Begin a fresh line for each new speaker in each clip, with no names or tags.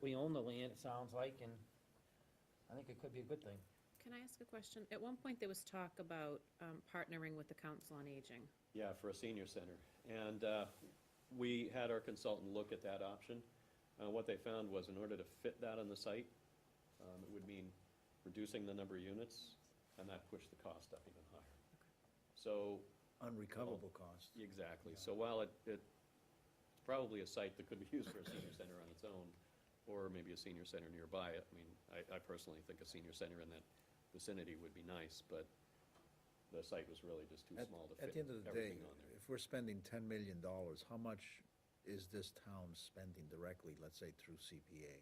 we own the land, it sounds like, and I think it could be a good thing.
Can I ask a question? At one point, there was talk about um, partnering with the Council on Aging.
Yeah, for a senior center. And uh, we had our consultant look at that option. Uh, What they found was in order to fit that on the site, um, it would mean reducing the number of units, and that pushed the cost up even higher. So,
Unrecoverable cost.
exactly. So while it, it- it's probably a site that could be used for a senior center on its own, or maybe a senior center nearby, I mean, I, I personally think a senior center in that vicinity would be nice, but the site was really just too
At-
small to
At
fit
the end of the day,
everything on there.
if we're spending ten million dollars, how much is this town spending directly, let's say through CPA?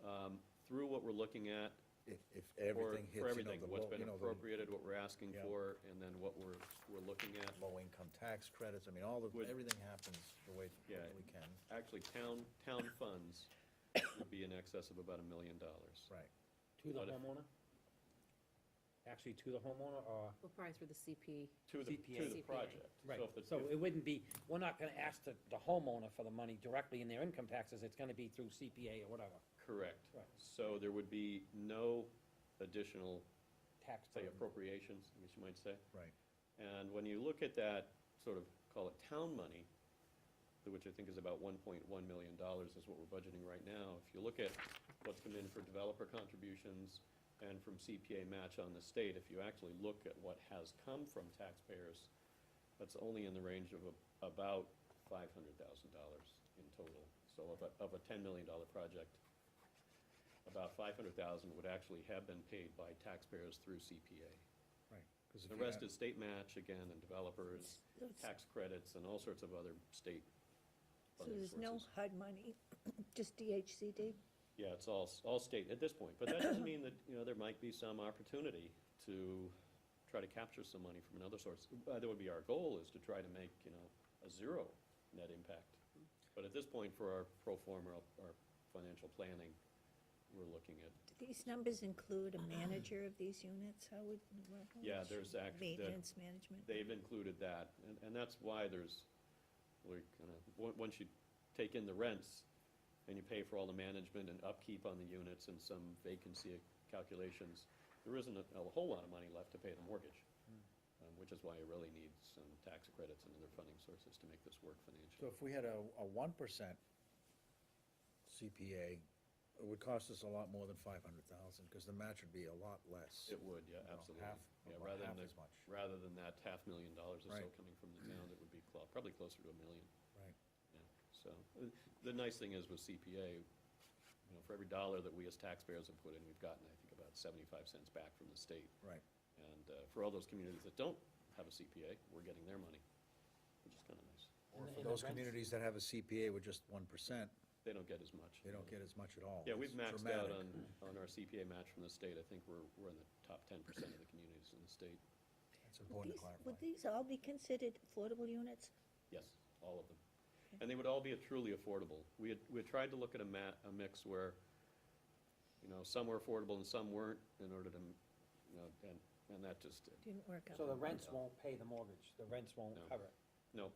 um, through what we're looking at,
If, if
or
everything hits, you
for
know,
everything,
the
what's
low-
been
you know, the
appropriated, what we're asking
Yeah.
for, and then what we're, we're looking at.
Low-income tax credits, I mean, all of,
Would-
everything happens the way
Yeah.
we can,
Actually, town, town funds would be in excess of about a million dollars.
right.
To the
But if-
homeowner? Actually, to the homeowner, or?
Well, probably through the CP.
To the, to
CPA.
the project. So if the-
So it wouldn't be, we're not gonna ask the, the homeowner for the money directly in their income taxes, it's gonna be through CPA or whatever,
Correct.
Right.
So there would be no additional,
tax.
say
burden.
appropriations, I guess you might say.
Right.
And when you look at that, sort of, call it town money, which I think is about one point one million dollars is what we're budgeting right now. If you look at what's come in for developer contributions and from CPA match on the state, if you actually look at what has come from taxpayers, that's only in the range of a- about five hundred thousand dollars in total. So of a, of a ten million dollar project, about five hundred thousand would actually have been paid by taxpayers through CPA.
Right. 'cause if
The
you
rest
had-
is state match again, and developers, tax credits, and all sorts of other state.
So
other
there's no
sources.
HUD money, just DHCD?
Yeah, it's all, s- all state at this point, but that doesn't mean that, you know, there might be some opportunity to try to capture some money from another source. Uh, That would be our goal, is to try to make, you know, a zero net impact. But at this point, for our pro forma, our- our financial planning, we're looking at,
Do these numbers include a manager of these units? How would? well, how
Yeah,
much
there's act- the-
Maintenance management?
they've included that, and, and that's why there's, we're gonna, on- once you take in the rents, and you pay for all the management and upkeep on the units and some vacancy calculations, there isn't a, a whole lot of money left to pay the mortgage,
Hmm.
um, which is why you really need some tax credits and other funding sources to make this work
So
financially.
if we had a, a one percent CPA, it would cost us a lot more than five hundred thousand, because the match would be a lot less.
It would, yeah,
You know,
absolutely.
half-
Yeah,
about
rather than
half
the-
as much.
Rather than that half million dollars or so
Right.
coming from the town, it would be clo- probably closer to a million.
Right.
Yeah, so, uh, the nice thing is with CPA, you know, for every dollar that we as taxpayers have put in, we've gotten, I think, about seventy-five cents back from the state.
Right,
And uh, for all those communities that don't have a CPA, we're getting their money, which is kind of nice.
or
And the-
for
and the
those
rents-
communities that have a CPA with just one percent,
They don't get as much.
they don't get as much at all.
Yeah, we've
It's
maxed out
dramatic.
on, on our CPA match from the state. I think we're, we're in the top ten percent of the communities in the state.
It's
Would
important to
these,
clarify.
would these all be considered affordable units?
Yes, all of them. And they would all be truly affordable. We had, we had tried to look at a ma, a mix where, you know, some were affordable and some weren't in order to, you know, and, and that just,
Didn't work
So the
out.
rents won't pay the mortgage, the rents won't
No.
cover it.
no,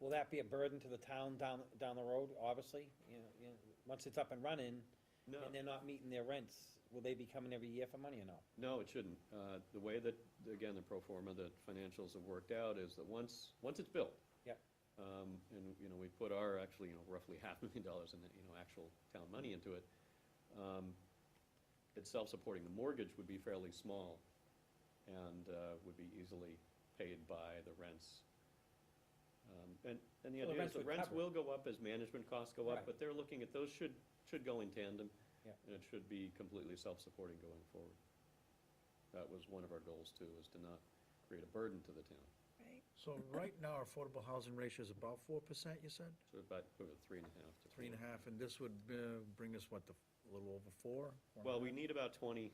Will that be a burden to the town down, down the road, obviously? You know, you know, once it's up and running,
no.
and they're not meeting their rents, will they be coming every year for money or no?
No, it shouldn't. Uh, The way that, again, the pro forma, that financials have worked out is that once, once it's built.
Yep.
um, And, you know, we put our, actually, you know, roughly half million dollars in, you know, actual town money into it. um, It's self-supporting. The mortgage would be fairly small and uh, would be easily paid by the rents. Um, And, and the
Well, the
idea is
rents
the
would
rents
cover it.
will go up as management costs go up,
Right.
but they're looking at, those should, should go in tandem.
Yeah.
And it should be completely self-supporting going forward. That was one of our goals too, is to not create a burden to the town.
Right.
So right now, our affordable housing ratio is about four percent, you said?
So about uh, three and a half to four.
Three and a half, and this would uh, bring us, what, the f- a little over four? Four and a
Well,
half?
we need about twenty,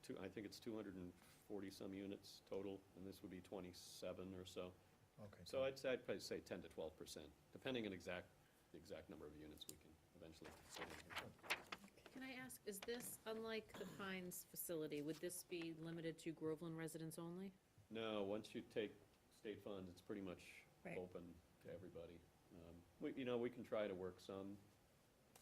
two, I think it's two hundred and forty-some units total, and this would be twenty-seven or so.
Okay.
So I'd say, I'd probably say ten to twelve percent, depending on exact, the exact number of units we can eventually fit in here.
Can I ask, is this, unlike the Pines facility, would this be limited to Groveland residents only?
No, once you take state funds, it's pretty much
Right.
open to everybody. Um, We, you know, we can try to work some